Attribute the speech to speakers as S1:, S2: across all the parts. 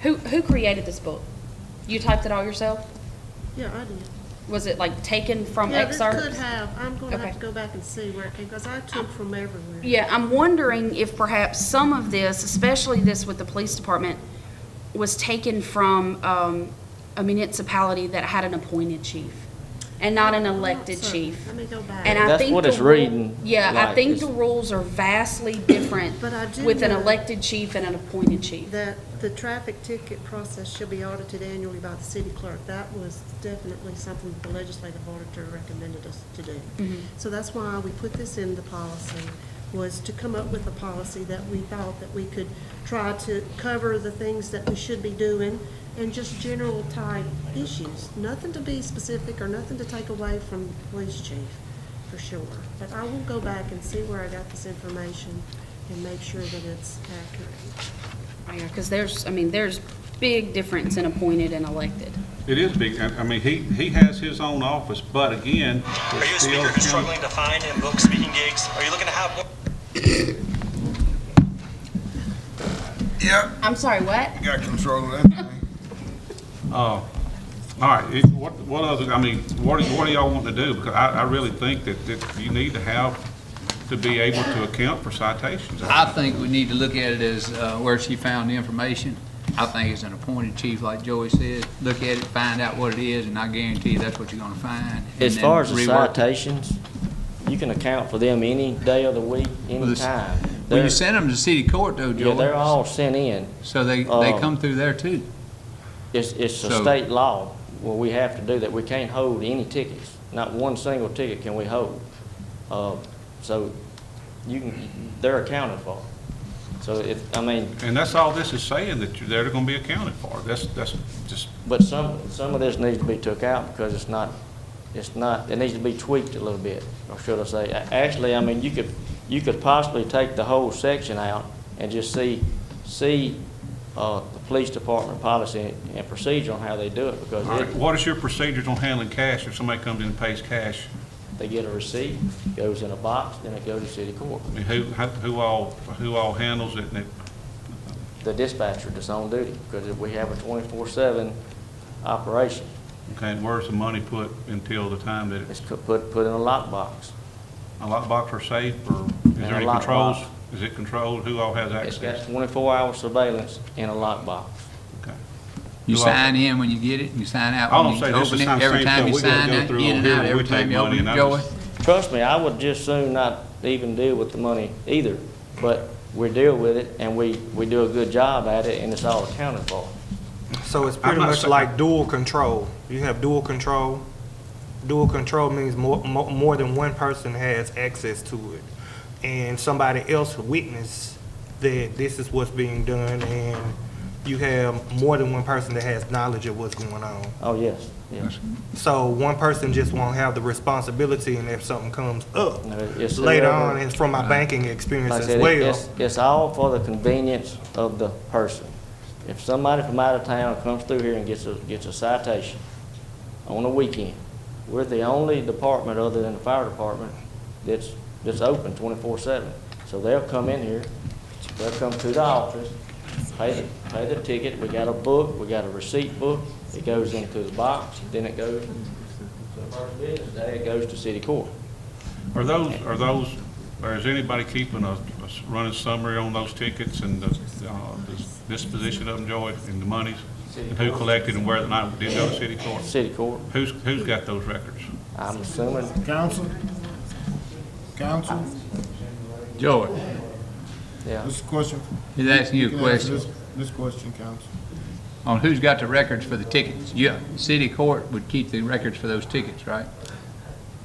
S1: Who, who created this book? You typed it all yourself?
S2: Yeah, I did.
S1: Was it like taken from
S2: Yeah, this
S1: excerpts?
S2: could have, I'm gonna have
S1: Okay.
S2: to go back and see where it came, because I took from everywhere.
S1: Yeah, I'm wondering if perhaps some of this, especially this with the police department, was taken from um, a municipality that had an appointed chief and not an elected
S2: Sure.
S1: chief.
S2: Let me go back.
S1: And I
S3: That's
S1: think
S3: what
S1: the
S3: it's
S1: rule-
S3: reading,
S1: Yeah, I
S3: like,
S1: think
S3: is-
S1: the rules are vastly different
S2: But I do
S1: with an
S2: know-
S1: elected chief and an appointed chief.
S2: That the traffic ticket process should be audited annually by the city clerk. That was definitely something the legislative auditor recommended us to do. So that's why we put this in the policy, was to come up with a policy that we thought that we could try to cover the things that we should be doing and just general type issues. Nothing to be specific or nothing to take away from the police chief, for sure. But I will go back and see where I got this information and make sure that it's accurate.
S1: Because there's, I mean, there's big difference in appointed and elected.
S4: It is big, I I mean, he, he has his own office, but again,
S5: Are you a
S4: it's still.
S5: speaker who's struggling to find and book speaking gigs? Are you looking to have more?
S6: Yep,
S1: I'm sorry, what?
S6: you got control of that thing.
S4: All right, it- what, what other, I mean, what do, what do y'all want to do? Because I, I really think that, that you need to have, to be able to account for citations.
S7: I think we need to look at it as uh, where she found the information. I think as an appointed chief, like Joey said, look at it, find out what it is, and I guarantee you that's what you're gonna find. and
S3: As
S7: then
S3: far as the
S7: rework it.
S3: citations, you can account for them any day of the week, any
S7: Well, the-
S3: time.
S7: When
S3: They're-
S7: you send them to city court though,
S3: Yeah, they're
S7: Joey,
S3: all sent in.
S7: so they, they
S3: uh,
S7: come through there too.
S3: It's, it's a
S7: So-
S3: state law where we have to do that. We can't hold any tickets. Not one single ticket can we hold. Uh, So you can, they're accounted for. So if, I mean,
S4: And that's all this is saying, that you're, they're gonna be accounted for. That's, that's just,
S3: But some, some of this needs to be took out because it's not, it's not, it needs to be tweaked a little bit, or should I say. A- Actually, I mean, you could, you could possibly take the whole section out and just see, see, uh, the police department policy and procedure on how they do it
S4: all
S3: because
S4: right,
S3: it,
S4: what is your procedures on handling cash if somebody comes in and pays cash?
S3: they get a receipt, goes in a box, then it goes to city court.
S4: I mean, who, how- who all, who all handles it and it?
S3: The dispatcher that's on duty, because if we have a twenty-four seven operation,
S4: Okay, and where's the money put until the time that it's,
S3: it's co- put, put in a lockbox.
S4: a lockbox or safe or is
S3: In
S4: there
S3: a
S4: any
S3: lockbox.
S4: controls? Is it controlled? Who all has
S3: It's got
S4: access?
S3: twenty-four hour surveillance in a lockbox.
S4: Okay.
S7: You
S4: Do I-
S7: sign in when you get it, and you sign out
S4: I
S7: when
S4: don't
S7: you
S4: say this
S7: open
S4: is
S7: it.
S4: not
S7: Every
S4: safe,
S7: time
S4: though.
S7: you
S4: We're gonna
S7: sign
S4: go
S7: out,
S4: through
S7: in
S4: on
S7: and
S4: here
S7: out,
S4: and we
S7: every
S4: take
S7: time you
S4: money
S7: open
S4: and
S7: it,
S4: I
S7: Joey.
S4: just-
S3: Trust me, I would just soon not even deal with the money either, but we deal with it and we, we do a good job at it and it's all accounted for.
S8: So it's pretty
S4: not
S8: much
S4: sa-
S8: like dual control. You have dual control. Dual control means more, more, more than one person has access to it. And somebody else witness that this is what's being done and you have more than one person that has knowledge of what's going on.
S3: Oh, yes, yes.
S8: So one person just won't have the responsibility and if something comes up
S3: No, it's
S8: later
S3: whoever-
S8: on, it's from my banking experience
S3: Like I
S8: as
S3: said, it-
S8: well.
S3: it's, it's all for the convenience of the person. If somebody from out of town comes through here and gets a, gets a citation on a weekend, we're the only department other than the fire department that's, that's open twenty-four seven. So they'll come in here, they'll come to the office, pay the, pay the ticket, we got a book, we got a receipt book, it goes into the box, then it goes, to the first business day, it goes to city court.
S4: Are those, are those, or is anybody keeping a, a s- running summary on those tickets and the, uh, this- this position of them, Joy, and the monies? And who collected and where the night did go to city court?
S3: City court,
S4: Who's, who's got those records?
S3: I'm assuming
S6: Council? Council?
S7: Joey,
S3: Yeah.
S6: This is a question.
S7: he's asking you a
S6: can answer
S7: question.
S6: this- This question, Council.
S7: On who's got the records for the tickets? Yeah, city court would keep the records for those tickets, right?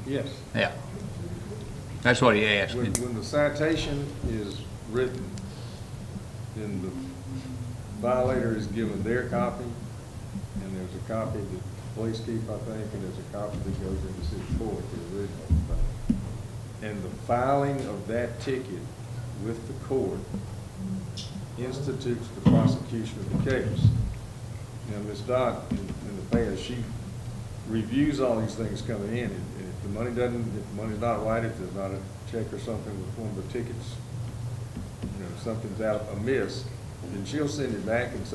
S9: Yes,
S7: Yeah. That's what he asked.
S9: when, when the citation is written, then the violator is given their copy, and there's a copy that the police keep, I think, and there's a copy that goes into city court, the original thing. And the filing of that ticket with the court institutes the prosecution of the case. Now, Ms. Dodd, in in the past, she reviews all these things coming in, and and if the money doesn't, if the money's not right, if there's not a check or something with one of the tickets, you know, if something's out amiss, then she'll send it back and say,